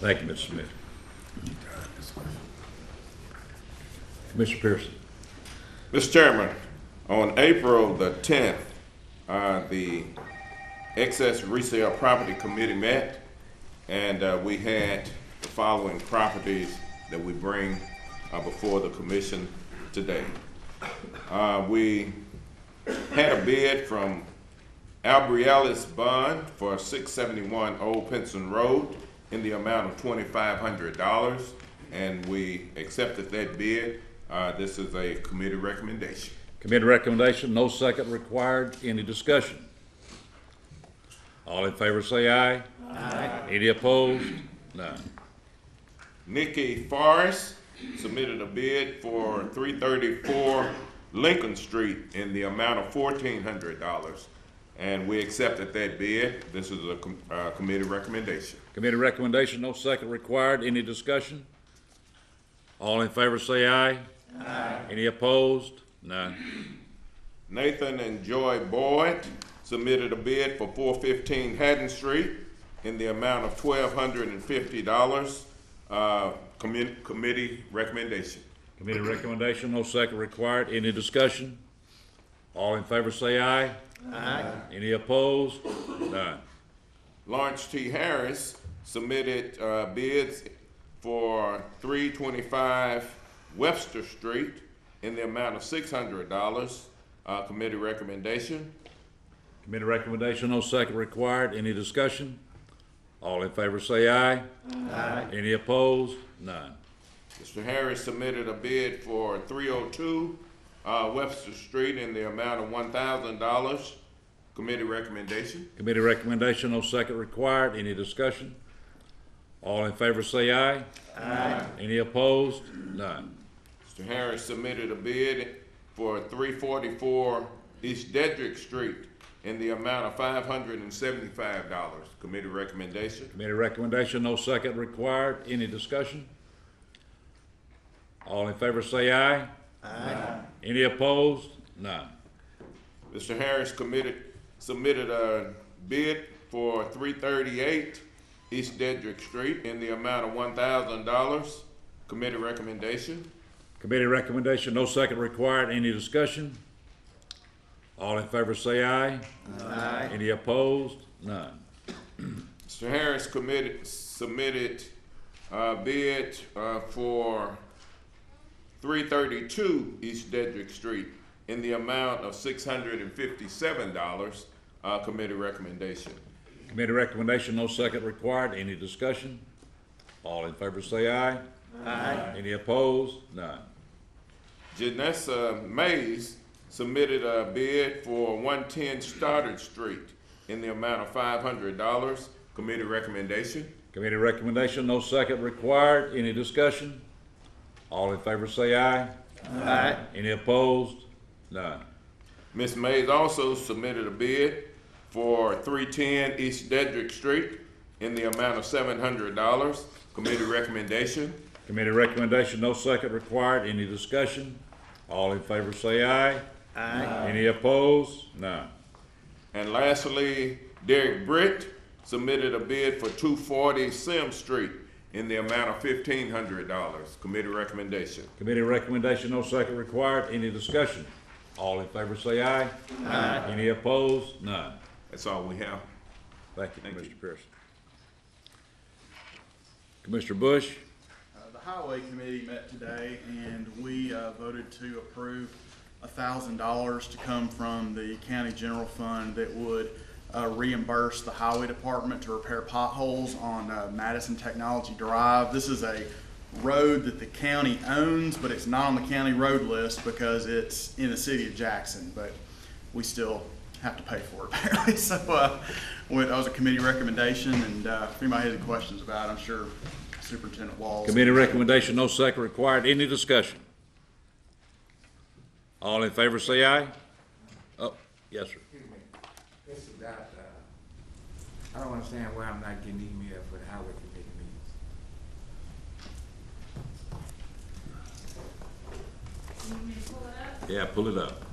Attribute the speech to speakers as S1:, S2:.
S1: Thank you, Mr. Smith. Commissioner Pearson.
S2: Mr. Chairman, on April the tenth, uh, the Excess Resale Property Committee met, and, uh, we had the following properties that we bring, uh, before the commission today. Uh, we had a bid from Albrialis Bond for six seventy-one Old Pinson Road in the amount of twenty-five hundred dollars, and we accepted that bid. Uh, this is a committee recommendation.
S1: Committee recommendation, no second required. Any discussion? All in favor say aye. Aye. Any opposed? None.
S2: Nikki Forrest submitted a bid for three thirty-four Lincoln Street in the amount of fourteen hundred dollars, and we accepted that bid. This is a, com- uh, committee recommendation.
S1: Committee recommendation, no second required. Any discussion? All in favor say aye. Aye. Any opposed? None.
S2: Nathan and Joy Boyd submitted a bid for four fifteen Haddon Street in the amount of twelve hundred and fifty dollars. Uh, commi- committee recommendation.
S1: Committee recommendation, no second required. Any discussion? All in favor say aye. Aye. Any opposed? None.
S2: Lawrence T. Harris submitted uh, bids for three twenty-five Webster Street in the amount of six hundred dollars. Uh, committee recommendation.
S1: Committee recommendation, no second required. Any discussion? All in favor say aye. Aye. Any opposed? None.
S2: Mr. Harris submitted a bid for three oh two, uh, Webster Street in the amount of one thousand dollars. Committee recommendation.
S1: Committee recommendation, no second required. Any discussion? All in favor say aye. Aye. Any opposed? None.
S2: Mr. Harris submitted a bid for three forty-four East Dedrick Street in the amount of five hundred and seventy-five dollars. Committee recommendation.
S1: Committee recommendation, no second required. Any discussion? All in favor say aye. Aye. Any opposed? None.
S2: Mr. Harris committed, submitted a bid for three thirty-eight East Dedrick Street in the amount of one thousand dollars. Committee recommendation.
S1: Committee recommendation, no second required. Any discussion? All in favor say aye. Aye. Any opposed? None.
S2: Mr. Harris committed, submitted a bid uh, for three thirty-two East Dedrick Street in the amount of six hundred and fifty-seven dollars. Uh, committee recommendation.
S1: Committee recommendation, no second required. Any discussion? All in favor say aye. Aye. Any opposed? None.
S2: Janessa Mays submitted a bid for one-ten Stoddard Street in the amount of five hundred dollars. Committee recommendation.
S1: Committee recommendation, no second required. Any discussion? All in favor say aye. Aye. Any opposed? None.
S2: Ms. Mays also submitted a bid for three-ten East Dedrick Street in the amount of seven hundred dollars. Committee recommendation.
S1: Committee recommendation, no second required. Any discussion? All in favor say aye. Aye. Any opposed? None.
S2: And lastly, Derek Britt submitted a bid for two forty Sim Street in the amount of fifteen hundred dollars. Committee recommendation.
S1: Committee recommendation, no second required. Any discussion? All in favor say aye. Aye. Any opposed? None.
S2: That's all we have.
S1: Thank you,
S2: Thank you.
S1: Mr. Pearson. Commissioner Bush,
S3: Uh, The Highway Committee met today and we uh, voted to approve thousand dollars to come from the county general fund that would uh, reimburse the highway department to repair potholes on uh, Madison Technology Drive. This is a road that the county owns, but it's not on the county road list because it's in the city of Jackson, but we still have to pay for it apparently. So uh, went- that was a committee recommendation and uh, if anybody has any questions about it, I'm sure Superintendent Walls.
S1: committee recommendation, no second required. Any discussion? All in favor say aye. Oh, yes, sir.
S4: Excuse me, this is not, uh, I don't understand why I'm not getting email for the highway committee meetings.
S1: Yeah, pull it up.